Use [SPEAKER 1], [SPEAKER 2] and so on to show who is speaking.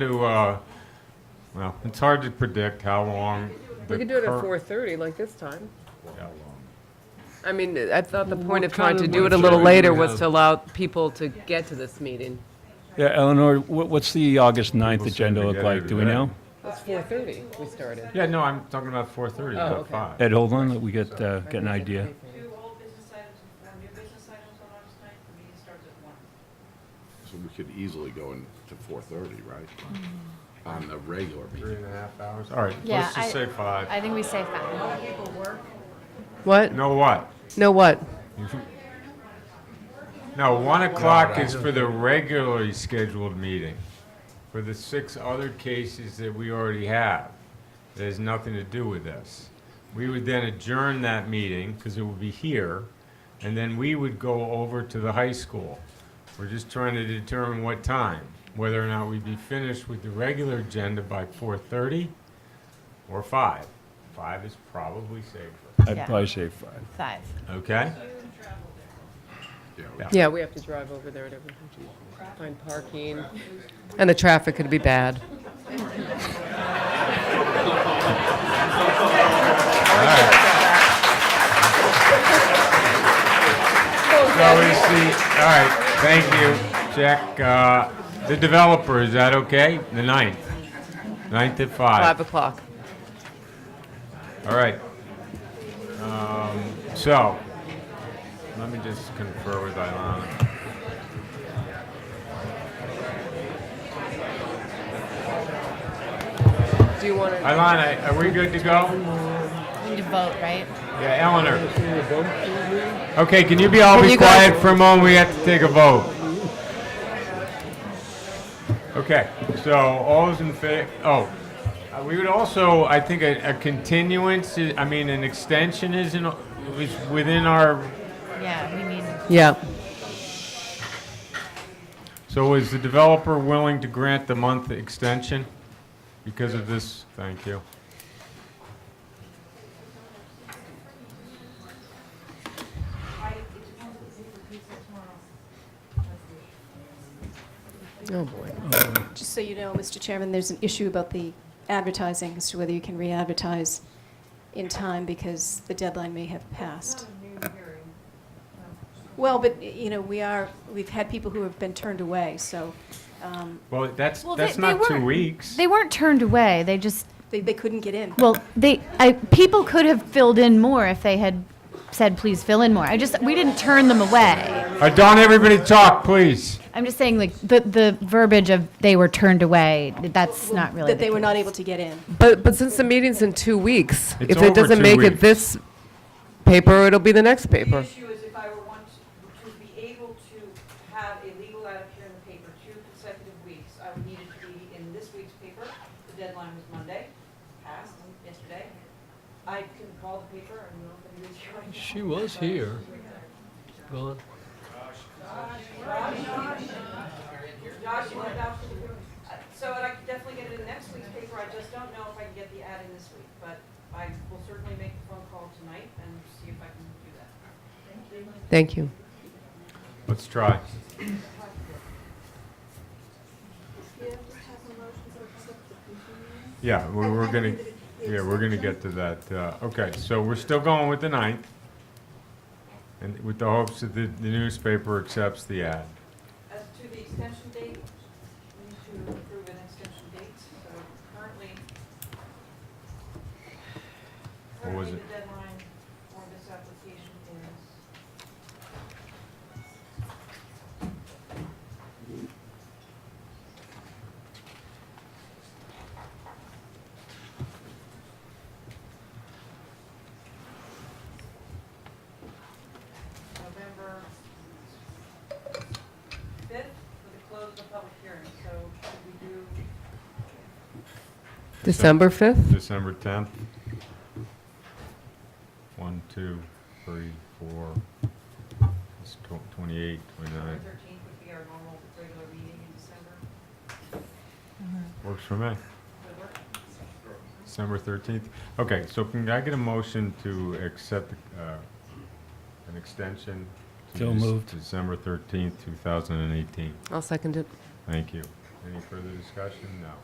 [SPEAKER 1] to, uh, well, it's hard to predict how long.
[SPEAKER 2] We
[SPEAKER 1] the
[SPEAKER 2] could do it at
[SPEAKER 1] cur-
[SPEAKER 2] four thirty, like this time.
[SPEAKER 1] Yeah.
[SPEAKER 2] I mean, I thought the point of
[SPEAKER 3] what
[SPEAKER 2] trying
[SPEAKER 3] kind
[SPEAKER 2] to
[SPEAKER 3] of
[SPEAKER 2] do it a
[SPEAKER 3] lunch
[SPEAKER 2] little
[SPEAKER 3] hour do you
[SPEAKER 2] later was
[SPEAKER 3] have?
[SPEAKER 2] to allow people to get to this meeting.
[SPEAKER 3] Yeah, Eleanor, wha- what's the August 9th
[SPEAKER 1] People seem
[SPEAKER 3] agenda
[SPEAKER 1] to
[SPEAKER 3] look
[SPEAKER 1] get
[SPEAKER 3] like?
[SPEAKER 1] it
[SPEAKER 3] Do we
[SPEAKER 1] today.
[SPEAKER 3] know?
[SPEAKER 2] It's four thirty we started.
[SPEAKER 1] Yeah, no, I'm talking about four thirty,
[SPEAKER 2] Oh,
[SPEAKER 1] not
[SPEAKER 2] okay.
[SPEAKER 1] five.
[SPEAKER 3] Ed, hold on, let we get, uh, get an idea.
[SPEAKER 4] Two old business items and four new business items on August ninth, the meeting starts at one.
[SPEAKER 5] So we could easily go into four thirty, right? On the regular
[SPEAKER 1] Three
[SPEAKER 5] meeting.
[SPEAKER 1] and a half hours, all right,
[SPEAKER 6] Yeah,
[SPEAKER 1] let's just
[SPEAKER 6] I-
[SPEAKER 1] say five.
[SPEAKER 6] I think we say five.
[SPEAKER 2] What?
[SPEAKER 1] No what?
[SPEAKER 2] No what?
[SPEAKER 1] No, one o'clock is for the regularly scheduled meeting. For the six other cases that we already have, it has nothing to do with this. We would then adjourn that meeting, because it would be here, and then we would go over to the high school. We're just trying to determine what time, whether or not we'd be finished with the regular agenda by four-thirty or five. Five is probably safer,
[SPEAKER 3] I'd
[SPEAKER 6] Yeah.
[SPEAKER 3] probably say five.
[SPEAKER 6] Five.
[SPEAKER 1] okay?
[SPEAKER 5] Yeah, we-
[SPEAKER 2] Yeah, we have to drive over there and everything. Find parking. And the traffic could be bad.
[SPEAKER 1] So is the, all right, thank you, Jack. Uh, The developer, is that okay? The ninth? Ninth at
[SPEAKER 2] Five
[SPEAKER 1] five?
[SPEAKER 2] o'clock.
[SPEAKER 1] All right. Um, So, let me just confer with Ilana.
[SPEAKER 2] Do you want to?
[SPEAKER 1] Ilana, are we good to go?
[SPEAKER 6] We need to vote, right?
[SPEAKER 1] Yeah, Eleanor. Okay, can you be all
[SPEAKER 2] Can
[SPEAKER 1] be
[SPEAKER 2] you go-
[SPEAKER 1] quiet for a moment? We have to take a vote. Okay, so all those in favor, oh, uh, we would also, I think, a, a continuance, i- I mean, an extension is in, is within our,
[SPEAKER 6] Yeah, we need.
[SPEAKER 2] Yeah.
[SPEAKER 1] so is the developer willing to grant the month extension because of this? Thank you.
[SPEAKER 2] Oh, boy.
[SPEAKER 7] Just so you know, Mr. Chairman, there's an issue about the advertising as to whether you can re-advertise in time because the deadline may have passed. Well, but, you know, we are, we've had people who have been turned away, so um,
[SPEAKER 1] Well, that's,
[SPEAKER 6] Well,
[SPEAKER 1] that's
[SPEAKER 6] they- they
[SPEAKER 1] not two
[SPEAKER 6] weren't-
[SPEAKER 1] weeks.
[SPEAKER 6] They weren't turned away. They just
[SPEAKER 7] they they couldn't get in.
[SPEAKER 6] well, they I, people could have filled in more if they had said, "Please fill in more." I just we didn't turn them away.
[SPEAKER 1] Uh, Don't everybody talk, please.
[SPEAKER 6] I'm just saying, like the the verbiage of they were turned away. That's not really
[SPEAKER 7] That they
[SPEAKER 6] the
[SPEAKER 7] were not
[SPEAKER 6] case.
[SPEAKER 7] able to get in.
[SPEAKER 2] But, but since the meeting's in two weeks,
[SPEAKER 1] It's
[SPEAKER 2] if it
[SPEAKER 1] over
[SPEAKER 2] doesn't
[SPEAKER 1] two
[SPEAKER 2] make it
[SPEAKER 1] weeks.
[SPEAKER 2] this paper, it'll be the next
[SPEAKER 4] The
[SPEAKER 2] paper.
[SPEAKER 4] issue is if I were want to be able to have a legal ad appear in the paper two consecutive weeks, I would need it to be in this week's paper. The deadline was Monday, passed yesterday. I can call the paper and we'll be with you right now.
[SPEAKER 3] She was here. Well,
[SPEAKER 4] Josh, you went out to the room. Uh, So I could definitely get it in next week's paper, I just don't know if I can get the ad in this week, but I will certainly make the phone call tonight and see if I can do that.
[SPEAKER 2] Thank you.
[SPEAKER 1] Let's try. Yeah, we- we're gonna, yeah, we're gonna get to that. Uh, Okay, so we're still going with the ninth, and with the hopes that the the newspaper accepts the ad.
[SPEAKER 4] As to the extension date, we need to approve an extension date, so currently,
[SPEAKER 1] What was
[SPEAKER 4] currently
[SPEAKER 1] it?
[SPEAKER 4] the deadline for this application is November fifth for the close of the public hearing, so should we do,
[SPEAKER 2] December 5th?
[SPEAKER 1] December 10th. One, two, three, four, It's tw- 28, 29.
[SPEAKER 4] November thirteenth would be our normal regular meeting in December?
[SPEAKER 1] Works for me.
[SPEAKER 4] Would work?
[SPEAKER 1] December 13th. Okay, so can I get a motion to accept uh, an extension? to
[SPEAKER 3] So
[SPEAKER 1] Dec-
[SPEAKER 3] moved.
[SPEAKER 1] December 13th, 2018.
[SPEAKER 2] I'll second it.
[SPEAKER 1] Thank you. Any further discussion? No.